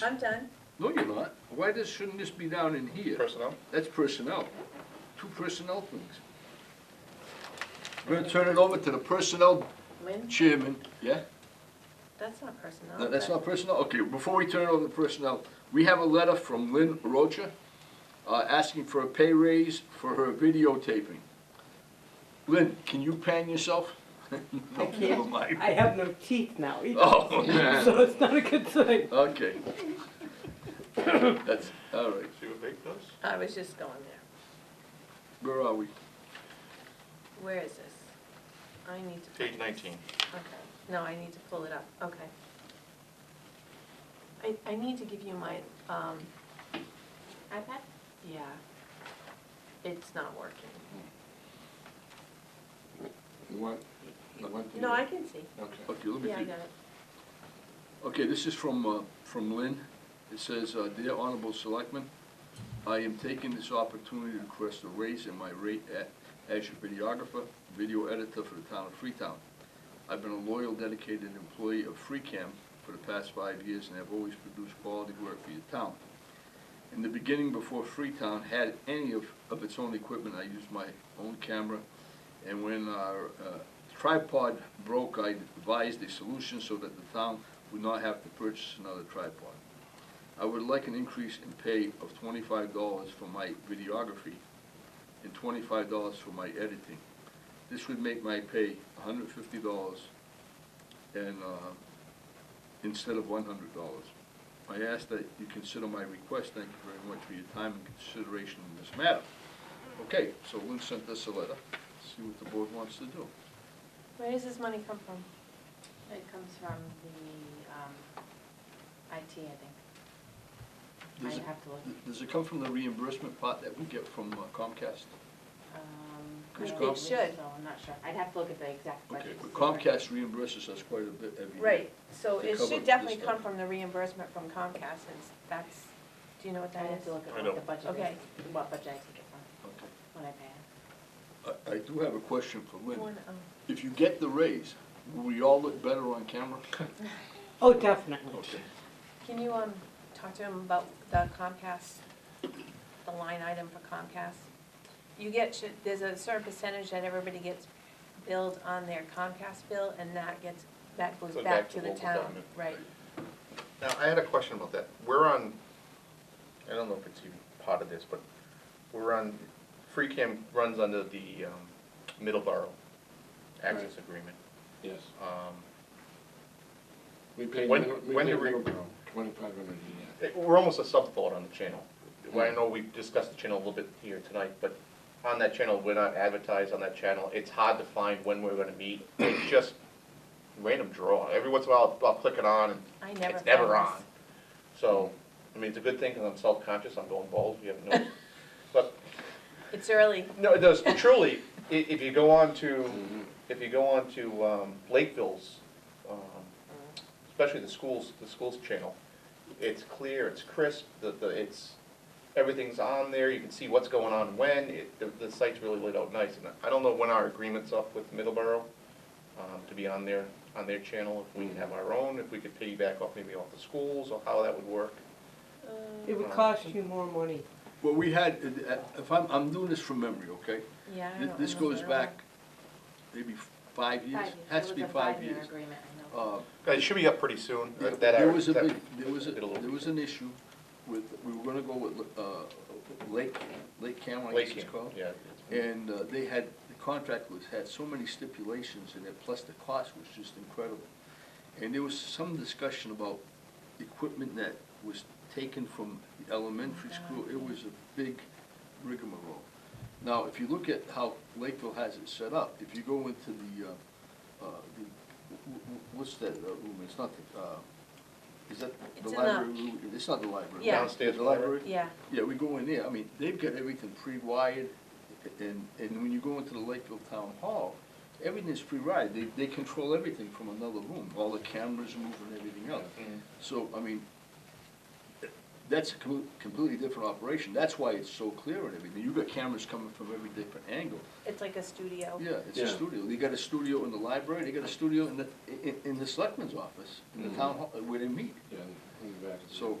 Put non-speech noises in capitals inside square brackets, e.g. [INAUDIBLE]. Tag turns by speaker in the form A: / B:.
A: I'm done.
B: No, you're not. Why does, shouldn't this be down in here?
C: Personnel?
B: That's personnel. Two personnel things. We're gonna turn it over to the personnel
A: Lynn,
B: chairman, yeah?
A: that's not personal.
B: No, That's
A: but-
B: not personnel? Okay, before we turn it over to personnel, we have a letter from Lynn Rocha, uh, asking for a pay raise for her videotaping. Lynn, can you pan yourself?
D: I
B: [LAUGHS] No, never
D: [LAUGHS] can't,
B: mind.
D: I have no teeth now either.
B: Oh, man,
D: [LAUGHS] So it's not a good thing.
B: okay. [COUGHS] That's, all right,
C: See what Vic does?
A: I was just going there.
B: where are we?
A: Where is this? I need to. pull
C: Page
A: this.
C: nineteen.
A: Okay, no, I need to pull it up, okay. I, I need to give you my, um,
E: iPad?
A: yeah, it's not working.
B: You want, you want?
A: No, I can see.
C: Okay.
B: Okay, let me
A: Yeah, I
B: think.
A: got it.
B: Okay, this is from, uh, from Lynn. It says, uh, "Dear Honorable Selectmen, I am taking this opportunity to request a raise in my rate at, as your videographer, video editor for the town of Freetown. I've been a loyal, dedicated employee of FreeCam for the past five years and have always produced quality work for your town. In the beginning, before Freetown had any of, of its own equipment, I used my own camera. And when our uh, tripod broke, I devised a solution so that the town would not have to purchase another tripod. I would like an increase in pay of twenty-five dollars for my videography and twenty-five dollars for my editing. This would make my pay hundred fifty dollars and, uh, instead of one hundred dollars. I ask that you consider my request. Thank you very much for your time and consideration in this matter. Okay, so Lynn sent us a letter. See what the board wants to do.
A: Where does this money come from?
E: It comes from the, um, IT, I
B: Does
E: think.
B: it-
E: I have to look.
B: Does it come from the reimbursement part that we get from uh, Comcast?
E: Um, I
B: Could
E: don't
B: you
E: believe
A: go- Should.
E: So I'm not sure. I'd have to look at the exact
B: Okay,
E: budget. to
B: but
E: see where-
B: Comcast reimburses us quite a bit every year.
A: Right, so
B: To
A: it
B: cover
A: should
B: this
A: definitely
B: stuff.
A: come from the reimbursement from Comcast, since that's, do you know what
E: I'd
A: that
E: have
A: is?
E: to look at
C: I
E: what
C: don't.
E: the budget
A: Okay.
E: is, what budget I take it from,
B: Okay.
E: when I pay it.
B: I, I do have a question for Lynn.
A: One, oh.
B: If you get the raise, will we all look better on
C: [LAUGHS]
B: camera?
D: Oh, definitely.
B: Okay.
A: Can you, um, talk to him about the Comcast, the line item for Comcast? You get, sh- there's a certain percentage that everybody gets billed on their Comcast bill, and that gets, that goes
C: So
A: back to the
C: local
A: town,
C: government.
A: right?
C: Now, I had a question about that. We're on, I don't know if it's even part of this, but we're on, free cam runs under the, um, Middleborough access agreement.
F: Yes,
C: Um,
F: we pay,
C: When-
F: minimum- we
C: when
F: pay
C: do we-
F: minimum, twenty-five hundred a year.
C: it- We're almost a sub-thought on the channel. Well, I know we've discussed the channel a little bit here tonight, but on that channel, we're not advertised on that channel. It's hard to find when we're gonna meet. It's just random draw. Every once in a while, I'll- I'll click it on and
A: I never.
C: It's never
A: found
C: on. So, I mean, it's a good thing because I'm self-conscious, I'm going bald, you haven't noticed. But,
A: this. It's early,
C: no, it does, truly, i- if you go on to, if you go on to um, Lakeville's, um, especially the schools, the schools channel, it's clear, it's crisp, the, the, it's, everything's on there, you can see what's going on when, it, the, the site's really laid out nice. And I don't know when our agreement's up with Middleborough, um, to be on their, on their channel, if we can have our own, if we could piggyback off maybe off the schools, or how that would work.
D: It would cost you more money.
B: Well, we had, uh, if I'm, I'm doing this from memory, okay?
A: yeah, I
B: Th-
A: don't
B: This goes
A: remember.
B: back maybe five years,
E: Five years.
B: has
E: It
B: to
E: was
B: be
E: a
B: five
E: five-year
B: years.
E: agreement, I know.
B: Uh,
C: It should be up pretty soon,
B: Yeah,
C: that,
B: There
C: that-
B: was a
C: that-
B: big, there was, a
C: middle of-
B: there was an issue with, we were gonna go with, uh, Lake, Lake Cameron, I
C: Lake
B: guess it's
C: Camp,
B: called.
C: yeah.
B: And uh, they had, the contract was, had so many stipulations in it, plus the cost was just incredible. And there was some discussion about equipment that was taken from the elementary
A: Oh
B: school, it was a big rigmarole. Now, if you look at how Lakeville has it set up, if you go into the, uh, uh, the, wh- wh- what's that uh, room, it's not the, uh, is that
A: It's
B: the
A: in the-
B: library room, it's not the library.
A: Yeah.
C: Downstairs
B: The library?
C: library.
A: Yeah,
B: Yeah, we go in there, I mean, they've got everything pre-wired, and, and when you go into the Lakeville Town Hall, everything is pre-wired, they, they control everything from another room, all the cameras move and everything else.
C: Mhm.
B: So, I mean, that's a com- completely different operation. That's why it's so clear and everything. You've got cameras coming from every different angle.
A: It's like a studio.
B: Yeah, it's
F: Yeah.
B: a studio. They got a studio in the library, they got a
F: Mm-hmm.
B: studio in the, in, in the selectman's office, in the town hall, uh, where they meet.
F: Yeah, in the back.
B: So